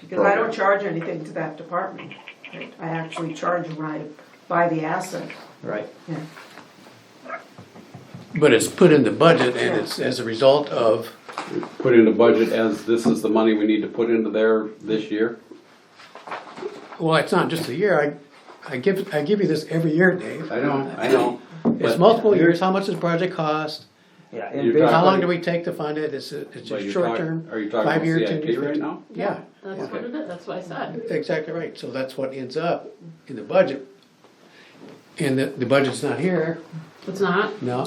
Because I don't charge anything to that department. I actually charge when I buy the asset. right? Yeah. But it's put in the budget and it's as a result of, Put in the budget as this is the money we need to put into there this year? well, it's not just a year, I, I give, I give you this every year, Dave. I know, I know. It's multiple years, how much does the project cost? You're Yeah. and talking- How basically- long do we take to fund it? It's, a- it's But just you're short talking- term, Are you five talking year, about ten CIP year. right now? Yeah, That's what it is, that's what I said. exactly right, so that's what ends up in the budget. And the, the budget's not here, It's not, no,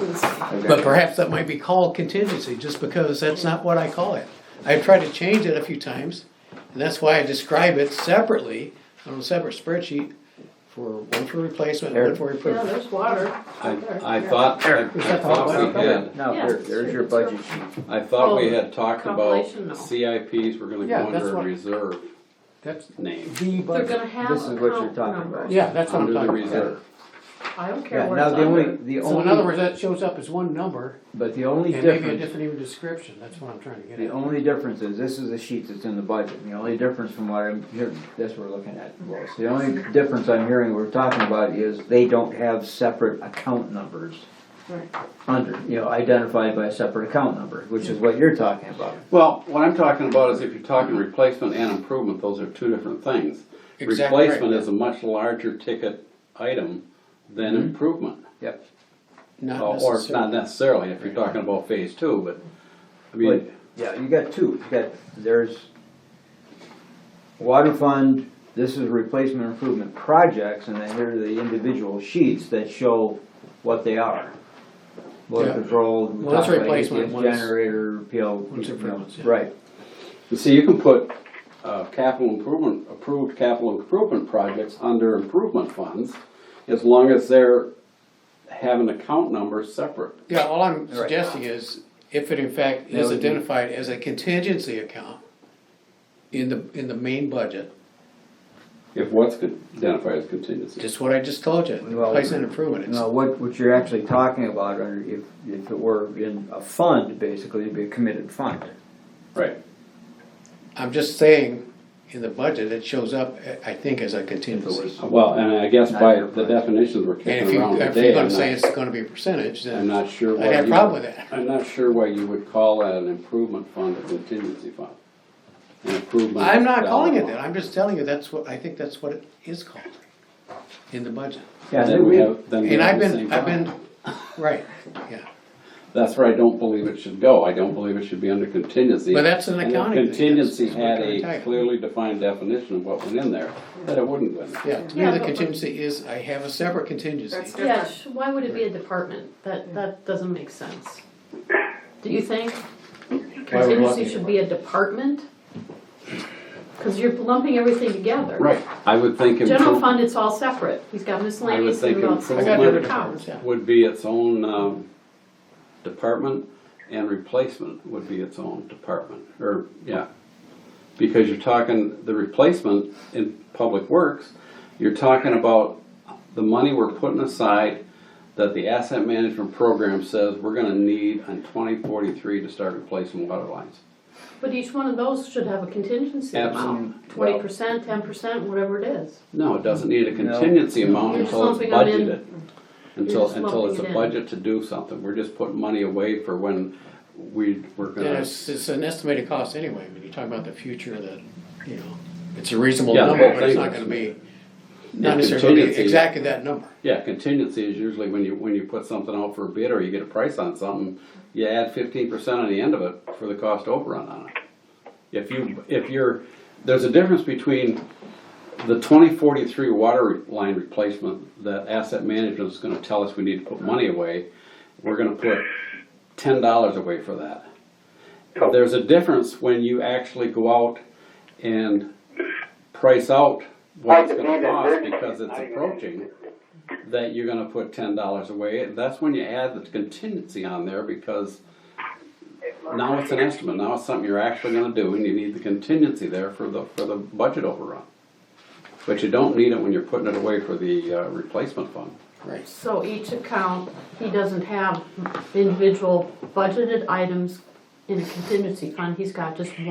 it's, but perhaps that might be called contingency, just because that's not what I call it. I've tried to change it a few times, and that's why I describe it separately on a separate spreadsheet for one for replacement, and one for yeah, improvement. there's water. I, out there. I Yeah. thought, I There. I thought we had, No, Yeah, here, it's there's true, your it's true. budget sheet. I thought we Oh, had talked about compilation, no. CIPs were gonna Yeah, go that's under a what- reserve That's, name, The They're gonna budget, have this is what you're account talking numbers. about. yeah, that's what I'm under the talking about. reserve. I don't care Yeah, where now it's the only, under. the So in other only, words, that shows up as one number, but the only and maybe a difference, different even description, that's what I'm trying to get the at. only difference is, this is the sheet that's in the budget, the only difference from what I'm hearing, this we're looking at, Lois. The only difference I'm hearing we're talking about is they don't have separate account numbers Right. under, you know, identified by a separate account number, which is what you're talking about. Well, what I'm talking about is if you're talking replacement and improvement, those are two different things. Exactly right. Replacement is a much larger ticket item than Mm-hmm. improvement. Yep. Not Or or not necessarily. necessarily, if you're talking about phase two, but, I But, mean, yeah, you got two, you got, there's water fund, this is replacement improvement projects, and then here are the individual sheets that show what they are. Water Yeah. control, we One's talked about replacement, ATS one's- generator, PL. one's you know, improvements, yeah. Right, you see, you can put, uh, capital improvement, approved capital improvement projects under improvement funds, as long as they're, have an account number separate. Yeah, all I'm suggesting is, if it in fact That is would be- identified as a contingency account in the, in the main budget, If what's con- identified as contingency. just what I just told you, Well, replacement improvement. it's- now what, what you're actually talking about, under, if, if it were in a fund, basically, it'd be a committed fund. Right. I'm just saying, in the budget, it shows up, I think, as a contingency. Well, and I guess Not by your the price. definitions we're And if kicking you, around if you're today, I'm gonna say not, it's gonna be a percentage, I'm then not sure. I'd why have a you- problem with that. I'm not sure why you would call that an improvement fund a contingency fund. An improvement. I'm not calling it dollar that, I'm just telling you, that's what, I think that's what it is called, in the budget. Yeah, Then we have, then we And I've have the been, same I've been, problem. right, yeah. That's where I don't believe it should go. I don't believe it should be under contingency. But that's an And if accounting thing. Contingency That's- that's had what I'm a talking. clearly defined definition of what went in there, that it wouldn't go in. there. Yeah, to Yeah, me, the but- contingency is, I have a separate contingency. That's- Yeah, sh- why would it be a department? That, that doesn't make sense. Do you think Why would what? contingency should be a department? Cause you're lumping everything together. Right, I would think General improvement fund, it's all separate. He's got miscellaneous think and about improvement- I six got hundred different accounts. departments, yeah. would be its own, um, department and replacement would be its own department, or, yeah. Because you're talking, the replacement in public works, you're talking about the money we're putting aside that the asset management program says we're gonna need on twenty forty-three to start replacing water lines. But each one of those should have a contingency amount, Absolute- twenty percent, ten percent, whatever it is. No, it doesn't need a contingency amount You're until it's just lumping 'em in. budgeted. Until, just until it's lumping a it in. budget to do something, we're just putting money away for when we, we're And gonna. it's, it's an estimated cost anyway, when you're talking about the future, that, you know, it's a reasonable Yeah, the number, whole but it's thing not is- gonna be, Yeah, not necessarily gonna be contingency. exactly that number. Yeah, contingency is usually when you, when you put something out for a bid or you get a price on something, you add fifteen percent on the end of it for the cost overrun on it. If you, if you're, there's a difference between the twenty forty-three water line replacement that asset management is gonna tell us we need to put money away. We're gonna put ten dollars away for that. There's a difference when you actually go out and price out what it's gonna cost because it's approaching, that you're gonna put ten dollars away, and that's when you add the contingency on there because now it's an estimate, now it's something you're actually gonna do, and you need the contingency there for the, for the budget overrun. But you don't need it when you're putting it away for the, uh, replacement fund. Right. So each account, he doesn't have individual budgeted items in a contingency fund, he's got just one.